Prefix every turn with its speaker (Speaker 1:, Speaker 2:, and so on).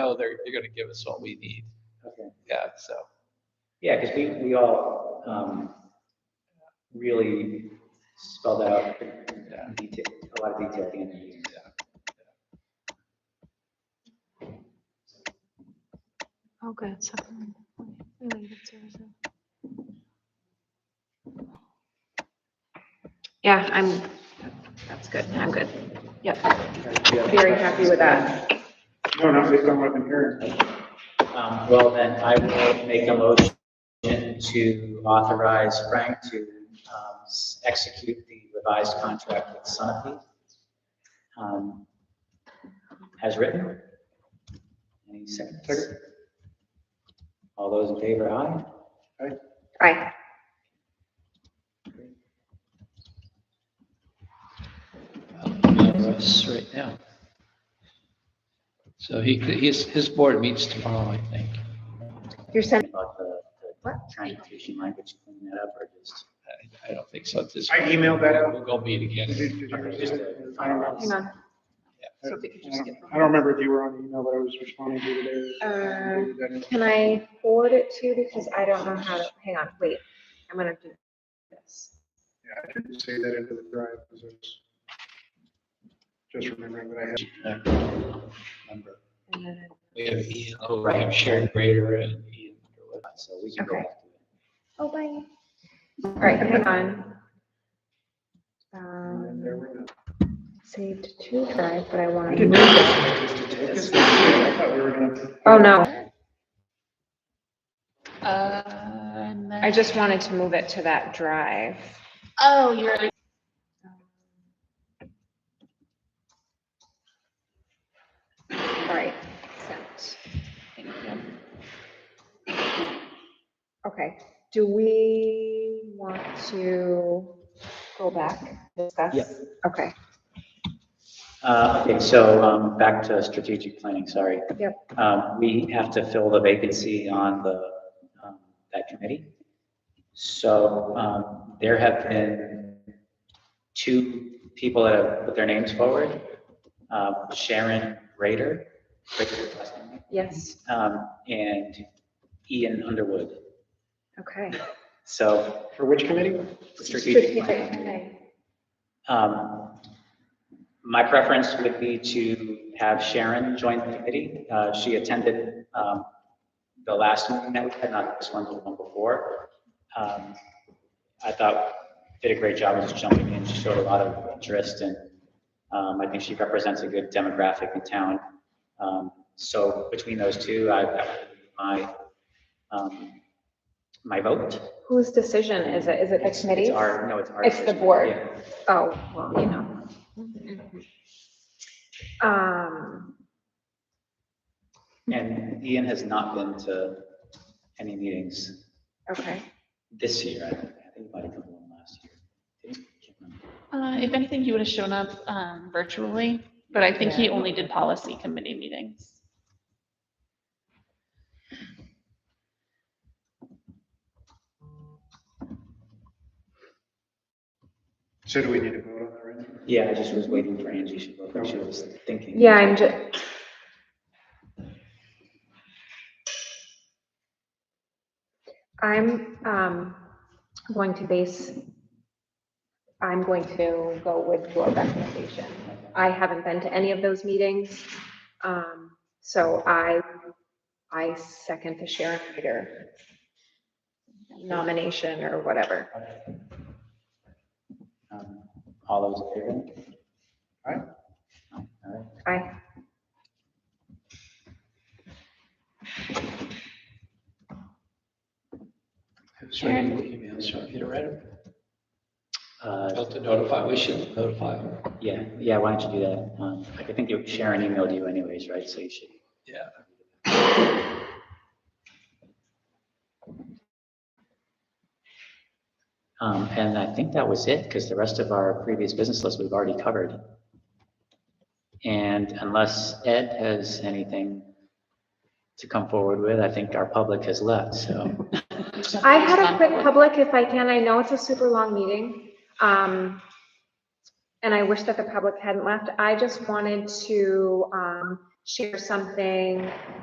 Speaker 1: know they're, they're gonna give us what we need.
Speaker 2: Okay.
Speaker 1: Yeah, so,
Speaker 2: Yeah, because we, we all um, really spelled that out in detail, a lot of detail at the end of the meeting.
Speaker 3: Oh, good, something related to it.
Speaker 4: Yeah, I'm, that's good, I'm good. Yep,
Speaker 2: Do you have
Speaker 4: very
Speaker 2: questions?
Speaker 4: happy with that.
Speaker 5: No, no, based on what I've been hearing.
Speaker 2: Um, Well, then I will make a motion to authorize Frank to um, s- execute the revised contract with Sunapee um, as written. Any seconds?
Speaker 5: Second.
Speaker 2: All those in favor, aye?
Speaker 4: Aye.
Speaker 1: for us right now. So he, his, his board meets tomorrow, I think.
Speaker 4: You're sending,
Speaker 2: About the the
Speaker 4: What?
Speaker 2: Constitution language, clean that up, or just?
Speaker 1: I- I don't think so at this.
Speaker 5: I emailed that out.
Speaker 1: We'll go meet
Speaker 5: Did you-
Speaker 1: again.
Speaker 5: did you receive it? I don't know.
Speaker 4: hang on.
Speaker 5: I
Speaker 4: Sophie, could you skip
Speaker 5: don't- I don't remember if you were on the email, but I was responding to
Speaker 4: Uh,
Speaker 5: you today.
Speaker 4: Can I forward it to you because I don't know how to, hang on, wait, I'm gonna do this.
Speaker 5: Yeah, I didn't say that into the drive, because it's just remembering that I had.
Speaker 4: And then
Speaker 1: We have Ian over, we have Sharon Grader and Ian. Underwood.
Speaker 2: So we can go
Speaker 4: Okay.
Speaker 2: back to it.
Speaker 4: Oh, bye. All right, hang on. Um, saved to drive, but I want to move it.
Speaker 5: I thought we were gonna.
Speaker 4: Oh, no,
Speaker 3: Uh, and
Speaker 4: I
Speaker 3: then,
Speaker 4: just wanted to move it to that drive.
Speaker 3: oh, you're,
Speaker 4: All right, sent.
Speaker 3: thank you.
Speaker 4: Okay, do we want to go back, discuss?
Speaker 2: Yeah.
Speaker 4: Okay,
Speaker 2: Uh, Okay, so um, back to strategic planning, sorry.
Speaker 4: Yep.
Speaker 2: Um, We have to fill the vacancy on the, um, that committee. So um, there have been two people that have put their names forward. Um, Sharon Rader, Rader, last name,
Speaker 4: yes,
Speaker 2: um, and Ian Underwood.
Speaker 4: okay.
Speaker 2: So
Speaker 5: For which committee?
Speaker 2: strategic planning. Um, My preference would be to have Sharon join the committee. Uh, She attended um, the last meeting that we had, not this one, but the one before. Um, I thought did a great job of just jumping in. She showed a lot of interest and um, I think she represents a good demographic in town. Um, So between those two, I, that would be my, um, my vote.
Speaker 4: Whose decision is it? Is it the
Speaker 2: It's-
Speaker 4: committee?
Speaker 2: It's our, no, it's our.
Speaker 4: It's the
Speaker 2: decision.
Speaker 4: board.
Speaker 2: Yeah.
Speaker 4: Oh, well, you know. Um,
Speaker 2: And Ian has not been to any meetings
Speaker 4: okay,
Speaker 2: this year. I don't- I think he might have come to one last year. Can't remember.
Speaker 3: Uh, if anything, he would have shown up, um, virtually, but I think he only did policy committee meetings.
Speaker 5: So do we need to vote on that right now?
Speaker 2: Yeah, I just was waiting for Angie. She looked like she was thinking.
Speaker 4: yeah, I'm just. I'm, um, going to base, I'm going to go with your recommendation. I haven't been to any of those meetings, um, so I, I second the Sharon Reader nomination or whatever.
Speaker 2: Um, All those in favor?
Speaker 5: All right.
Speaker 2: All right.
Speaker 4: Aye.
Speaker 1: So I need the email, so I can read them.
Speaker 2: Uh,
Speaker 1: About to notify, we should notify them.
Speaker 2: Yeah, yeah, why don't you do that? Um, I think you- Sharon emailed you anyways, right? So you should.
Speaker 1: Yeah.
Speaker 2: Um, And I think that was it, because the rest of our previous business list we've already covered. And unless Ed has anything to come forward with, I think our public has left, so.
Speaker 4: I had a quick public, if I can, I know it's a super long meeting. um, And I wish that the public hadn't left. I just wanted to um, share something